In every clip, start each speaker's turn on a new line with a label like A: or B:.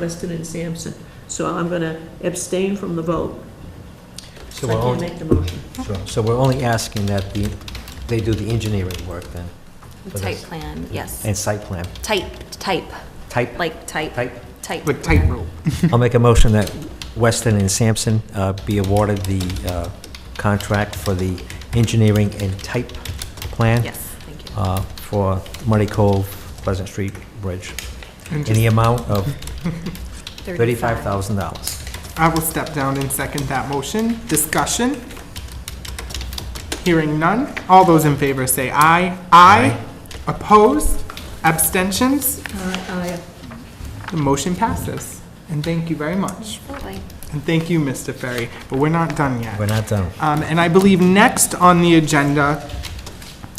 A: Weston and Sampson. So I'm going to abstain from the vote.
B: So
A: I
B: we're
A: can't
B: only,
A: make the motion.
B: sure. so we're only asking that the, they do the engineering work then, For
C: Type
B: this.
C: plan, yes.
B: and site plan.
C: Type, type,
B: Type,
C: like type,
B: type.
C: type.
D: Like tightrope.
B: I'll make a motion that Weston and Sampson uh, be awarded the uh, contract for the engineering and type plan
C: Yes, thank you.
B: uh, for Muddy Cove Pleasant Street Bridge,
D: And
B: in the amount of $35,000.
D: I will step down and second that motion. Discussion? Hearing none. All those in favor say aye. Aye. Opposed? Abstentions?
C: Uh,
A: I,
D: The motion passes. And thank you very much.
C: Absolutely.
D: And thank you, Mr. Ferry. But we're not done yet.
B: We're not done.
D: Um, And I believe next on the agenda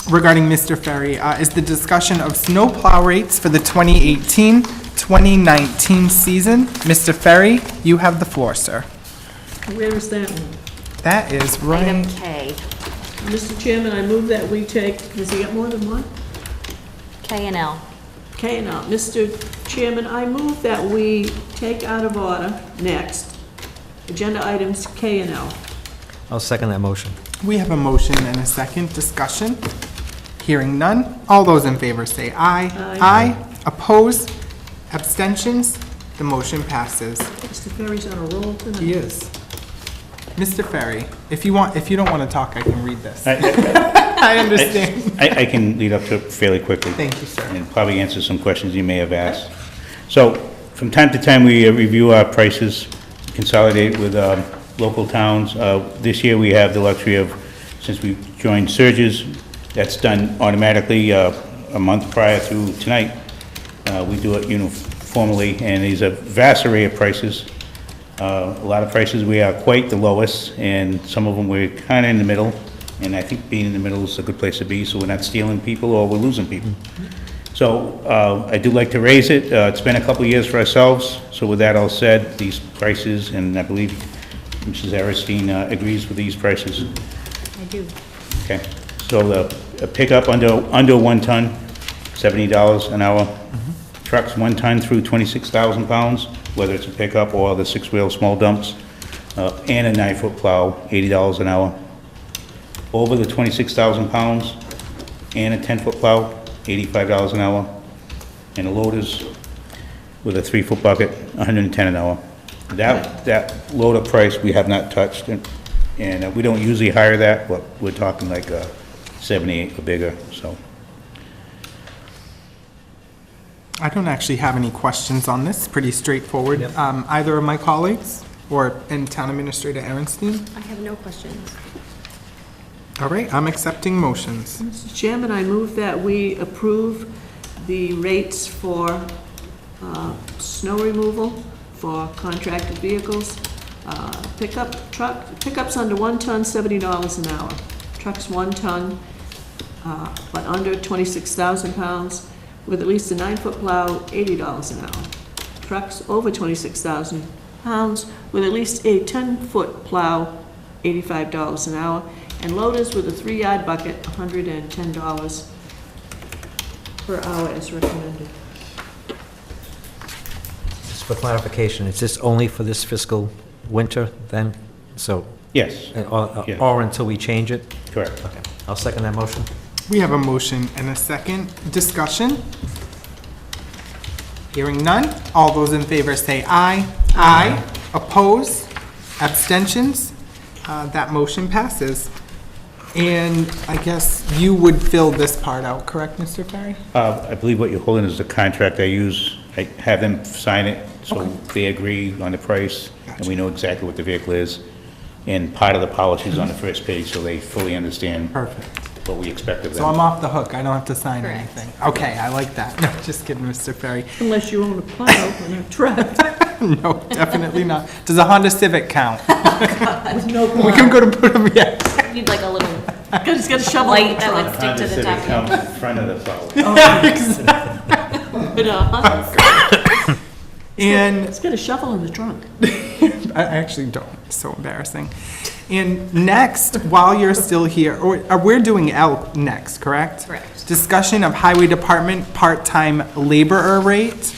D: regarding Mr. Ferry uh, is the discussion of snow plow rates for the 2018-2019 season. Mr. Ferry, you have the floor, sir.
A: where is that one?
D: That is
C: Item
D: right.
C: K,
A: Mr. Chairman, I move that we take, does he get more than one?
C: K and L.
A: Okay, now, Mr. Chairman, I move that we take out of order next, agenda items K and L.
B: I'll second that motion.
D: We have a motion and a second discussion. Hearing none. All those in favor say aye.
A: Aye.
D: Aye. Opposed? Abstentions? The motion passes.
A: Mr. Ferry's on a roll tonight.
D: He is. Mr. Ferry, if you want, if you don't want to talk, I can read this.
E: I,
D: I
E: I-
D: understand.
E: I can lead up to it fairly quickly.
D: Thank you, sir.
E: And probably answer some questions you may have asked. So, from time to time, we uh, review our prices, consolidate with um, local towns. Uh, This year, we have the luxury of, since we joined Surges, that's done automatically uh, a month prior to tonight. Uh, We do it uniformly, and there's a vast array of prices. Uh, A lot of prices, we are quite the lowest, and some of them we're kind of in the middle, and I think being in the middle is a good place to be, so we're not stealing people or we're losing people. So uh, I do like to raise it. Uh, It's been a couple of years for ourselves, so with that all said, these prices, and I believe Mrs. Aristine uh, agrees with these prices.
C: I do.
E: Okay, so the a pickup under, under one ton, seventy dollars an hour.
C: Mm-hmm.
E: Trucks one ton through twenty-six thousand pounds, whether it's a pickup or the six-wheel small dumps, uh, and a nine-foot plow, eighty dollars an hour. Over the twenty-six thousand pounds, and a ten-foot plow, eighty-five dollars an hour. And the loaders with a three-foot bucket, hundred and ten an hour. That, that loader price, we have not touched, and, and uh, we don't usually hire that, but we're talking like, uh, seventy-eight or bigger, so.
D: I don't actually have any questions on this, pretty straightforward. Um, Either of my colleagues or, and Town Administrator Aaronstein.
C: I have no questions.
D: All right, I'm accepting motions.
A: Mr. Chairman, I move that we approve the rates for uh, snow removal for contracted vehicles, uh, pickup truck, pickups under one ton, seventy dollars an hour. Trucks one ton, uh, but under twenty-six thousand pounds, with at least a nine-foot plow, eighty dollars an hour. Trucks over twenty-six thousand pounds, with at least a ten-foot plow, eighty-five dollars an hour, and loaders with a three-yard bucket, hundred and ten dollars per hour as recommended.
B: Just for clarification, is this only for this fiscal winter then? So,
E: Yes,
B: uh, or
E: Yeah.
B: or until we change it?
E: correct.
B: Okay, I'll second that motion.
D: We have a motion and a second discussion. Hearing none, all those in favor say aye. Aye. Oppose? Abstentions? Uh, That motion passes. And I guess you would fill this part out, correct, Mr. Ferry?
E: Uh, I believe what you're holding is the contract I use. I have them sign it, so they agree on the price, and we know exactly what the vehicle is. And part of the policy is on the first page, so they fully understand
D: Perfect.
E: what we expect of them.
D: So I'm off the hook, I don't have to sign
C: Correct.
D: anything. Okay, I like that. No, just kidding, Mr. Ferry.
A: Unless you own a plow and a truck
D: No, definitely not. Does a Honda Civic count?
A: with no
D: We
A: plow,
D: can go to put them, yeah.
C: Need like a little
A: because it's got a shovel in
C: light
A: the
C: that
A: truck.
C: would stick to the
E: Honda Civic
C: document.
E: comes in front of the plow.
A: But, uh,
D: And
A: It's got a shovel in the trunk.
D: I actually don't, so embarrassing. And next, while you're still here, or, uh, we're doing L next, correct?
C: Correct.
D: Discussion of Highway Department part-time laborer rate.